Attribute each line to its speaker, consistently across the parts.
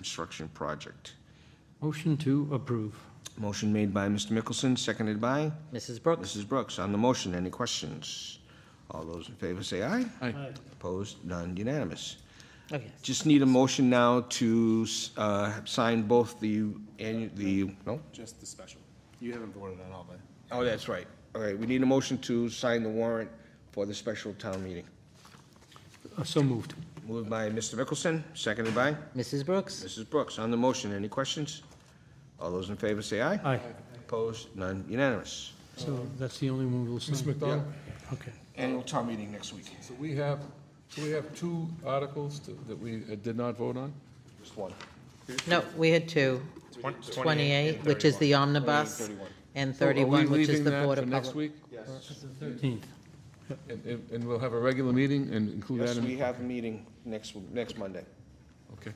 Speaker 1: construction project.
Speaker 2: Motion to approve.
Speaker 1: Motion made by Mr. Mickelson, seconded by
Speaker 3: Mrs. Brooks?
Speaker 1: Mrs. Brooks. On the motion, any questions? All those in favor say aye.
Speaker 2: Aye.
Speaker 1: Opposed, none unanimous.
Speaker 3: Oh, yes.
Speaker 1: Just need a motion now to uh, sign both the, annu- the, no?
Speaker 4: Just the special. You haven't voted on all of it.
Speaker 1: Oh, that's right. All right, we need a motion to sign the warrant for the special town meeting.
Speaker 2: Uh, So moved.
Speaker 1: Moved by Mr. Mickelson, seconded by
Speaker 3: Mrs. Brooks?
Speaker 1: Mrs. Brooks. On the motion, any questions? All those in favor say aye.
Speaker 2: Aye.
Speaker 1: Opposed, none unanimous.
Speaker 2: So that's the only one we'll sign.
Speaker 5: Mr. McDonald,
Speaker 2: Okay.
Speaker 1: Annual town meeting next week.
Speaker 5: so we have, so we have two articles to- that we uh, did not vote on?
Speaker 1: Just one.
Speaker 3: No, we had two. 28, which is the omnibus, and 31, which is the Board of
Speaker 5: Are we leaving that for next
Speaker 3: Public.
Speaker 5: week?
Speaker 2: Thirteenth.
Speaker 5: And- And, and we'll have a regular meeting and include that
Speaker 1: Yes,
Speaker 5: in?
Speaker 1: we have a meeting next, next Monday.
Speaker 5: Okay.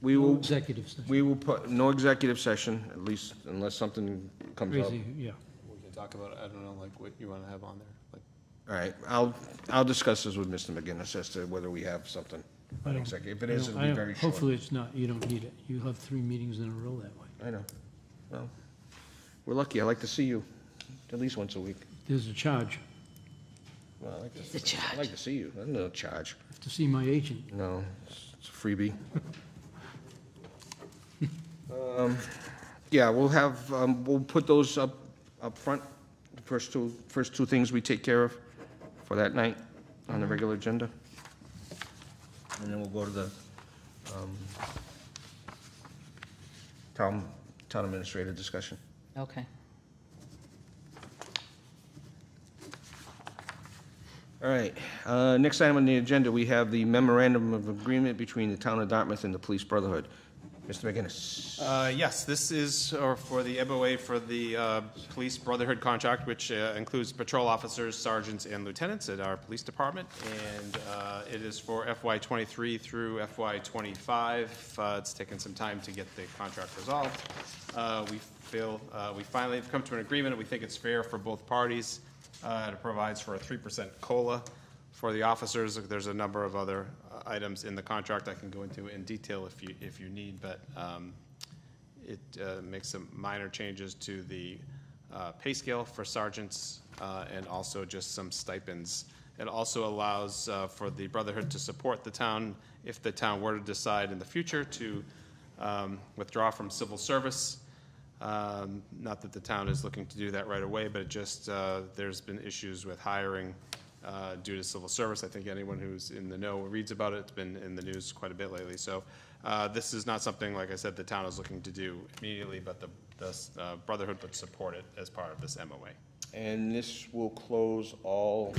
Speaker 1: We will,
Speaker 2: Executive session.
Speaker 1: we will put, no executive session, at least unless something comes up.
Speaker 2: Crazy, yeah.
Speaker 4: We can talk about, it. I don't know, like, what you want to have on there, like.
Speaker 1: All right, I'll, I'll discuss this with Mr. McGinnis as to whether we have something
Speaker 2: I
Speaker 1: on
Speaker 2: don't-
Speaker 1: executive. If it
Speaker 2: I
Speaker 1: is,
Speaker 2: don't-
Speaker 1: it'll
Speaker 2: I
Speaker 1: be
Speaker 2: don't-
Speaker 1: very short.
Speaker 2: Hopefully it's not, you don't need it. You'll have three meetings in a row that way.
Speaker 1: I know. Well, we're lucky. I like to see you at least once a week.
Speaker 2: There's a charge.
Speaker 1: Well, I like to,
Speaker 3: The
Speaker 1: I
Speaker 3: charge.
Speaker 1: like to see you. There's no charge.
Speaker 2: Have to see my agent.
Speaker 1: No, it's it's a freebie. Um, Yeah, we'll have, um, we'll put those up, up front, the first two, first two things we take care of for that night on the regular agenda. Mm-hmm. And then we'll go to the um, town, town administrator discussion.
Speaker 3: Okay.
Speaker 1: All right, uh, next item on the agenda, we have the memorandum of agreement between the town of Dartmouth and the Police Brotherhood. Mr. McGinnis.
Speaker 4: Uh, Yes, this is uh, for the MOA for the uh, Police Brotherhood contract, which uh, includes patrol officers, sergeants, and lieutenants at our police department. And uh, it is for FY '23 through FY '25. Uh, It's taken some time to get the contract resolved. Uh, We feel, uh, we finally have come to an agreement, and we think it's fair for both parties. Uh, It provides for a 3% COLA for the officers, there's a number of other uh, items in the contract I can go into in detail if you, if you need, but um, it uh, makes some minor changes to the uh, pay scale for sergeants uh, and also just some stipends. It also allows uh, for the Brotherhood to support the town if the town were to decide in the future to um, withdraw from civil service. Um, Not that the town is looking to do that right away, but it just, uh, there's been issues with hiring uh, due to civil service. I think anyone who's in the know reads about it, it's been in the news quite a bit lately. So uh, this is not something, like I said, the town is looking to do immediately, but the the, uh, Brotherhood would support it as part of this MOA.
Speaker 1: And this will close all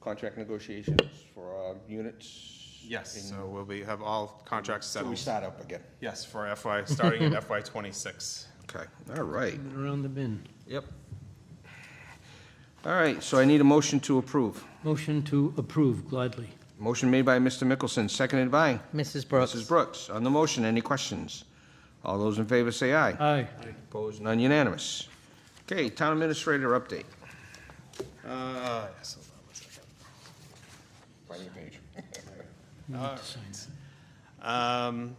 Speaker 1: contract negotiations for our units?
Speaker 4: So we'll be, have all contracts
Speaker 1: So we
Speaker 4: settled.
Speaker 1: start up again?
Speaker 4: Yes, for FY, starting at FY '26.
Speaker 1: Okay, all right.
Speaker 2: Coming Around the bin.
Speaker 1: Yep. All right, so I need a motion to approve.
Speaker 2: Motion to approve gladly.
Speaker 1: Motion made by Mr. Mickelson, seconded by
Speaker 3: Mrs. Brooks?
Speaker 1: Mrs. Brooks. On the motion, any questions? All those in favor say aye.
Speaker 2: Aye.
Speaker 1: Opposed, none unanimous. Okay, town administrator update.
Speaker 4: Uh, yes, hold on one second.
Speaker 2: Need to sign that.
Speaker 4: Um,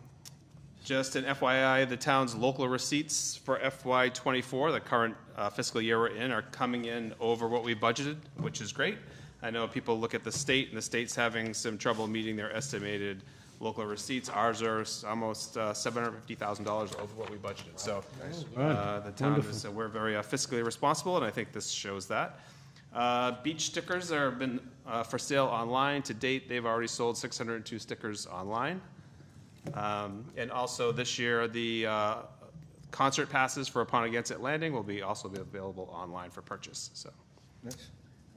Speaker 4: Just an FYI, the town's local receipts for FY '24, the current uh, fiscal year we're in, are coming in over what we budgeted, which is great. I know people look at the state, and the state's having some trouble meeting their estimated local receipts. Ours are s- almost uh, $750,000 over what we budgeted, so uh, the town is, we're very uh, fiscally responsible, and I think this shows that. Uh, Beach stickers are been uh, for sale online. To date, they've already sold 602 stickers online. Um, And also this year, the uh, concert passes for Upon Against It Landing will be, also be available online for purchase, so.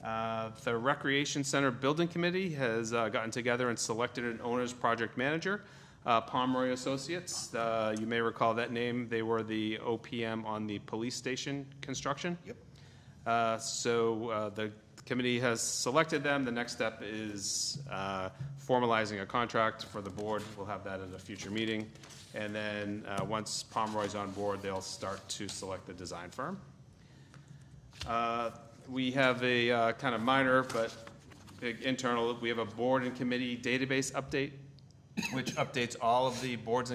Speaker 4: Uh, The Recreation Center Building Committee has uh, gotten together and selected an owner's project manager, uh, Pomeroy Associates. Uh, You may recall that name. They were the OPM on the police station construction. Yep. Uh, So uh, the committee has selected them. The next step is uh, formalizing a contract for the board. We'll have that at a future meeting. And then, uh, once Pomeroy's on board, they'll start to select the design firm. Uh, We have a uh, kind of minor but big internal, we have a board and committee database update. which updates all of the boards and